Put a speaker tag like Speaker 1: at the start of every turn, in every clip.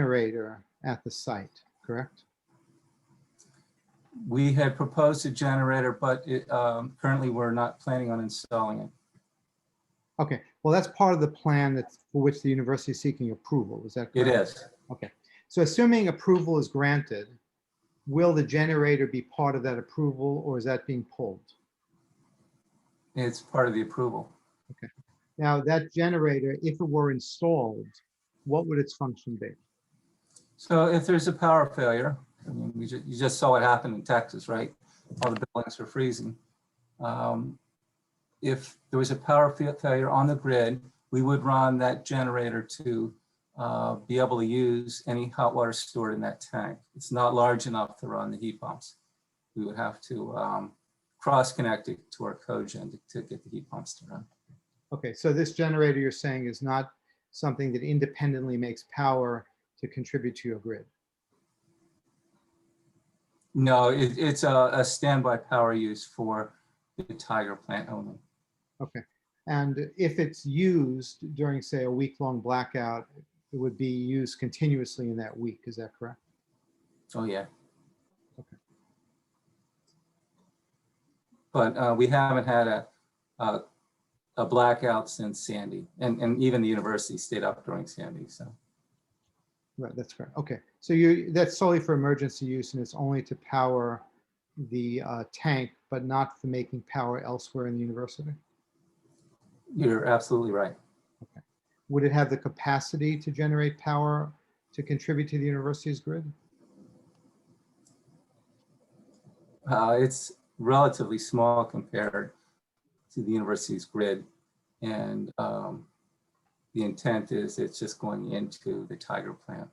Speaker 1: generator at the site, correct?
Speaker 2: We had proposed a generator, but it, um, currently we're not planning on installing it.
Speaker 1: Okay, well, that's part of the plan that's, for which the university is seeking approval, is that
Speaker 2: It
Speaker 1: correct?
Speaker 2: is.
Speaker 1: So assuming approval is granted, will the generator be part of that approval or is that being pulled?
Speaker 2: It's part of the approval.
Speaker 1: Now, that generator, if it were installed, what would its function be?
Speaker 2: So if there's a power failure, I mean, we ju- you just saw what happened in Texas, right? All the buildings were freezing. Um, If there was a power fa- failure on the grid, we would run that generator to uh, be able to use any hot water stored in that tank. It's not large enough to run the heat pumps. We would have to um, cross-connect it to our cogen to- to get the heat pumps to run.
Speaker 1: Okay, so this generator you're saying is not something that independently makes power to contribute to your grid?
Speaker 2: No, it- it's a a standby power use for the Tiger plant only.
Speaker 1: And if it's used during, say, a week-long blackout, it would be used continuously in that week, is that correct?
Speaker 2: Oh, yeah.
Speaker 1: Okay.
Speaker 2: But uh, we haven't had a, a, a blackout since Sandy, and, and even the university stayed up during Sandy, so.
Speaker 1: Right, that's correct. Okay, so you, that's solely for emergency use and it's only to power the uh, tank, but not for making power elsewhere in the university?
Speaker 2: You're absolutely right.
Speaker 1: Would it have the capacity to generate power to contribute to the university's grid?
Speaker 2: Uh, It's relatively small compared to the university's grid. And um, the intent is it's just going into the Tiger plant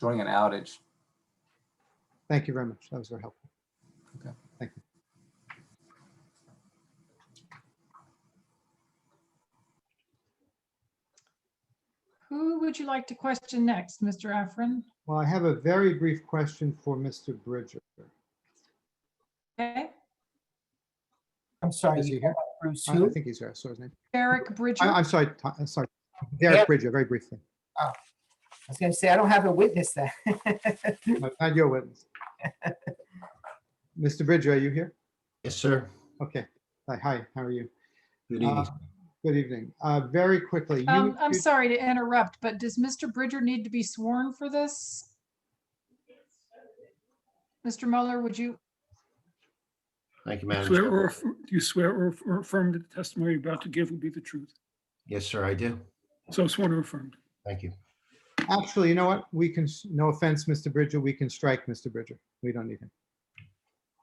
Speaker 2: during an outage.
Speaker 1: Thank you very much. That was very helpful.
Speaker 2: Okay.
Speaker 1: Thank you.
Speaker 3: Who would you like to question next, Mr. Afrin?
Speaker 1: Well, I have a very brief question for Mr. Bridger.
Speaker 3: Okay,
Speaker 4: I'm sorry,
Speaker 1: Is he
Speaker 4: you
Speaker 1: here?
Speaker 4: got Bruce
Speaker 1: I I
Speaker 4: who?
Speaker 1: think he's here. I saw his name.
Speaker 3: Eric
Speaker 1: I-
Speaker 3: Bridger.
Speaker 1: I'm sorry, Tom- I'm sorry.
Speaker 4: Eric.
Speaker 1: Derek Bridger, very briefly.
Speaker 4: I was gonna say, I don't have a witness that.
Speaker 1: I'm Not your witness. Mr. Bridger, are you here?
Speaker 5: Yes, sir.
Speaker 1: Okay. Hi, Hi, how are you?
Speaker 5: Good
Speaker 1: Uh,
Speaker 5: evening.
Speaker 1: Good evening. Uh, Very quickly. you-
Speaker 3: Um, I'm
Speaker 1: you-
Speaker 3: sorry to interrupt, but does Mr. Bridger need to be sworn for this? Mr. Muller, would you,
Speaker 5: Thank you, Madam
Speaker 6: Swear
Speaker 5: Chair.
Speaker 6: or, aff- do you swear or aff- or affirm that the testimony you're about to give will be the truth?
Speaker 5: Yes, sir, I do.
Speaker 6: So sworn or affirmed.
Speaker 5: Thank you.
Speaker 1: Actually, you know what? We can, s- no offense, Mr. Bridger, we can strike Mr. Bridger. We don't need him.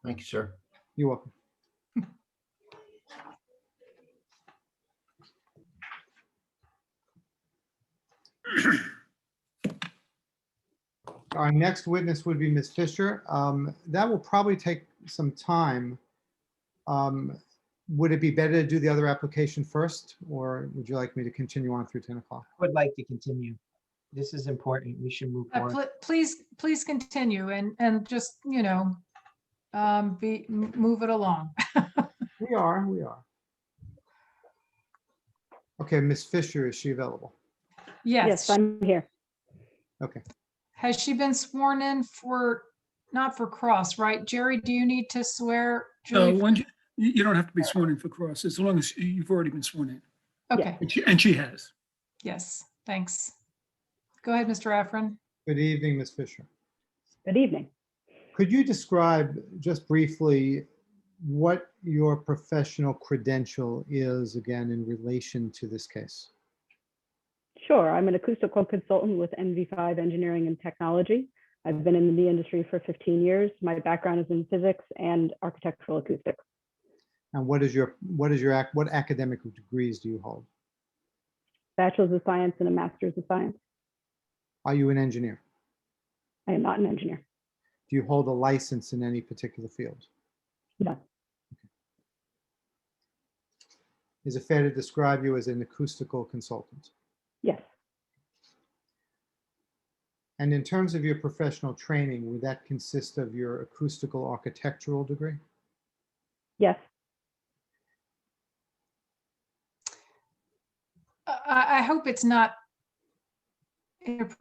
Speaker 5: Thank you, sir.
Speaker 1: You're welcome. Our next witness would be Ms. Fisher. Um, That will probably take some time. Um, Would it be better to do the other application first, or would you like me to continue on through 10 o'clock?
Speaker 4: Would like to continue. This is important. We should move
Speaker 3: uh,
Speaker 4: forward.
Speaker 3: pl- please, please continue and, and just, you know, um, be, m- move it along.
Speaker 1: We are, we are. Okay, Ms. Fisher, is she available?
Speaker 3: Yes.
Speaker 7: Yes, I'm here.
Speaker 3: Has she been sworn in for, not for cross, right? Jerry, do you need to swear?
Speaker 6: Uh,
Speaker 3: Julie?
Speaker 6: when you, you you don't have to be sworn in for cross, as long as you- you've already been sworn in,
Speaker 3: Okay,
Speaker 6: and she, and she has.
Speaker 3: yes, thanks. Go ahead, Mr. Afrin.
Speaker 1: Good evening, Ms. Fisher.
Speaker 7: Good evening.
Speaker 1: Could you describe just briefly what your professional credential is again in relation to this case?
Speaker 7: Sure, I'm an acoustical consultant with NV5 Engineering and Technology. I've been in the industry for 15 years. My background is in physics and architectural acoustics.
Speaker 1: And what is your, what is your, ac- what academic degrees do you hold?
Speaker 7: Bachelor's of Science and a Master's of Science.
Speaker 1: Are you an engineer?
Speaker 7: I am not an engineer.
Speaker 1: Do you hold a license in any particular field?
Speaker 7: No,
Speaker 1: Is it fair to describe you as an acoustical consultant?
Speaker 7: yes,
Speaker 1: And in terms of your professional training, would that consist of your acoustical architectural degree?
Speaker 7: yes,
Speaker 3: I, I- I hope it's not inappropriate